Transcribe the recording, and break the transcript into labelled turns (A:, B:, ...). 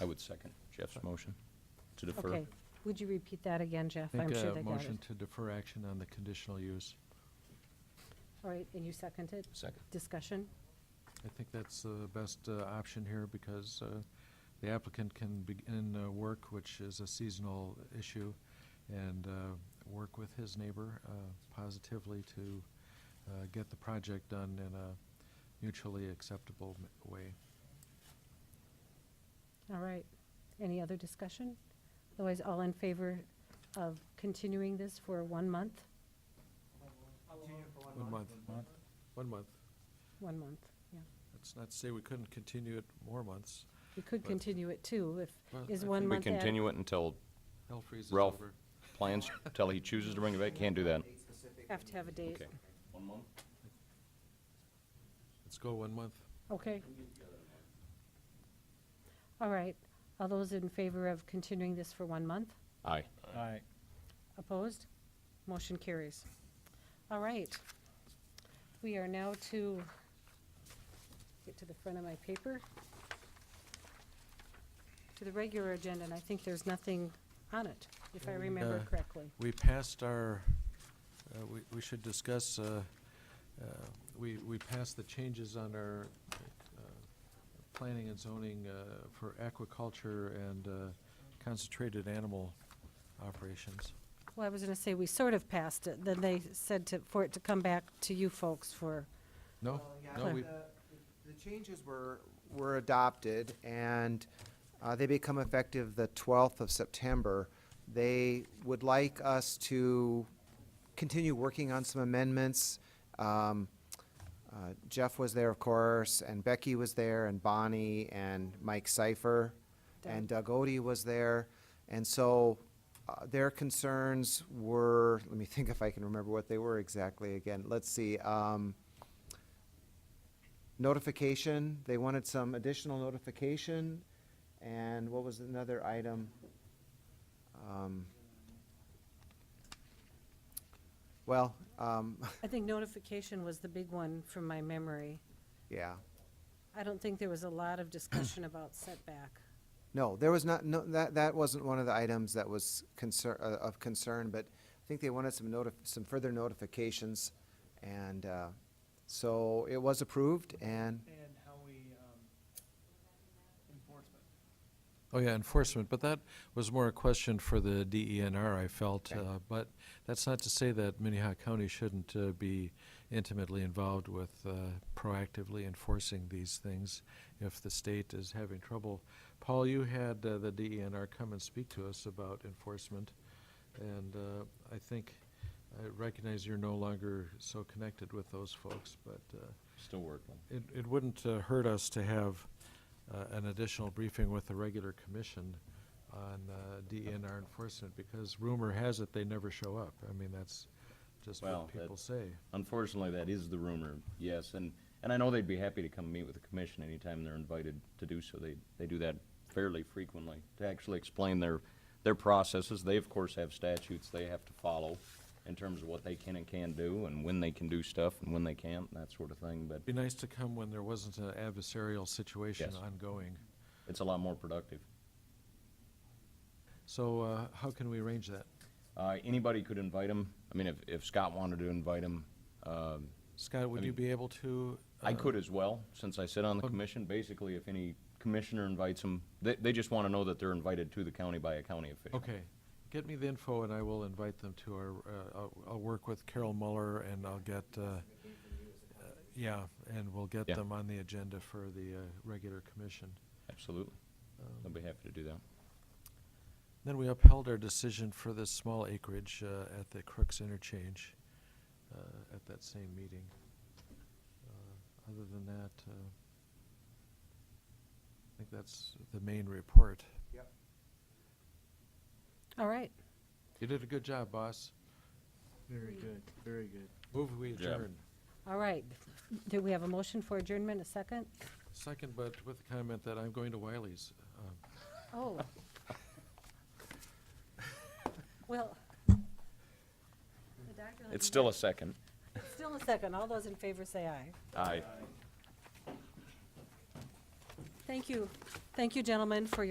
A: I would second Jeff's motion to defer.
B: Okay. Would you repeat that again, Jeff?
C: Make
B: I'm
C: a
B: sure they got
C: motion
B: it.
C: to defer action on the conditional use.
B: All right, and you seconded?
A: Second.
B: Discussion?
C: I think that's the best uh, option here because uh, the applicant can begin uh, work, which is a seasonal issue, and uh, work with his neighbor uh, positively to uh, get the project done in a mutually acceptable m- way.
B: All right. Any other discussion? Otherwise, all in favor of continuing this for one month?
C: One month. One month.
B: One month, yeah.
C: That's not to say we couldn't continue it more months.
B: We could
C: But-
B: continue it too,
C: Well,
B: if, is
C: I
B: one
C: think
A: We
B: month. ad-
A: continue it until
C: Hell freezes
A: Ralph.
C: over.
A: plans, until he chooses to bring it back, can't do that.
B: Have to have a date.
A: Okay. One month?
C: Let's go one month.
B: Okay. All right. All those in favor of continuing this for one month?
A: Aye.
D: Aye.
B: Opposed? Motion carries. All right. We are now to get to the front of my paper. To the regular agenda, and I think there's nothing on it, if I
C: We,
B: remember
C: uh,
B: correctly.
C: We passed our, uh, we we should discuss, uh, uh, we we passed the changes on our uh, planning and zoning uh, for aquaculture and uh, concentrated animal operations.
B: Well, I was gonna say, we sort of passed it, then they said to, for it to come back to you folks for,
C: No?
E: Well, yeah,
C: No,
E: but
C: we-
E: the- The changes were, were adopted, and uh, they become effective the 12th of September. They would like us to continue working on some amendments. Um, uh, Jeff was there, of course, and Becky was there, and Bonnie, and Mike Cipher, and Doug Odie was there. And so uh, their concerns were, let me think if I can remember what they were exactly again. Let's see. um, notification, they wanted some additional notification, and what was another item? Um, Well, um,
B: I think notification was the big one from my memory.
E: yeah,
B: I don't think there was a lot of discussion about setback.
E: no, there was not, no, that, that wasn't one of the items that was concern, uh, of concern, but I think they wanted some notif, some further notifications, and, uh, so it was approved, and
D: And how we, um, enforcement.
C: Oh, yeah, enforcement, but that was more a question for the DENR, I felt.
E: Okay.
C: uh, But that's not to say that Minnehaha County shouldn't uh, be intimately involved with uh, proactively enforcing these things if the state is having trouble. Paul, you had uh, the DENR come and speak to us about enforcement, and uh, I think, I recognize you're no longer so connected with those folks, but uh,
A: Still working.
C: it, it wouldn't uh, hurt us to have uh, an additional briefing with the regular commission on uh, DNR enforcement, because rumor has it they never show up. I mean, that's just
A: Well,
C: what people
A: that-
C: say.
A: Unfortunately, that is the rumor, yes, and, and I know they'd be happy to come meet with the commission anytime they're invited to do so. They, they do that fairly frequently, to actually explain their, their processes. They, of course, have statutes they have to follow in terms of what they can and can't do, and when they can do stuff, and when they can't, and that sort of thing, but
C: Be nice to come when there wasn't an adversarial situation
A: Yes.
C: ongoing.
A: it's a lot more productive.
C: So uh, how can we arrange that?
A: Uh, anybody could invite them. I mean, if, if Scott wanted to invite them, um,
C: Scott, would
A: I
C: you
A: mean,
C: be able to?
A: I
C: uh,
A: could as well, since I sit on the
C: Um,
A: commission. Basically, if any commissioner invites them, they, they just want to know that they're invited to the county by a county official.
C: Okay, get me the info and I will invite them to our, uh, I'll, I'll work with Carol Muller and I'll get, uh, uh, yeah, and we'll get
A: Yeah.
C: them on the agenda for the, uh, regular commission. Um,
A: Absolutely. I'll be happy to do that.
C: Then we upheld our decision for this small acreage, uh, at the Crooks interchange, uh, at that same meeting. Uh, Other than that, uh, I think that's the main report.
B: All right.
C: You did a good job, boss.
D: Very good, very good.
C: Move we
A: Good job.
C: adjourn.
B: All right. Do we have a motion for adjournment, a second?
C: Second, but with the comment that I'm going to Wiley's. Um,
B: Oh. Well. the doctor let me
A: It's
B: know.
A: still a second.
B: Still a second. All those in favor say aye.
A: Aye.
B: Thank you. Thank you, gentlemen, for your.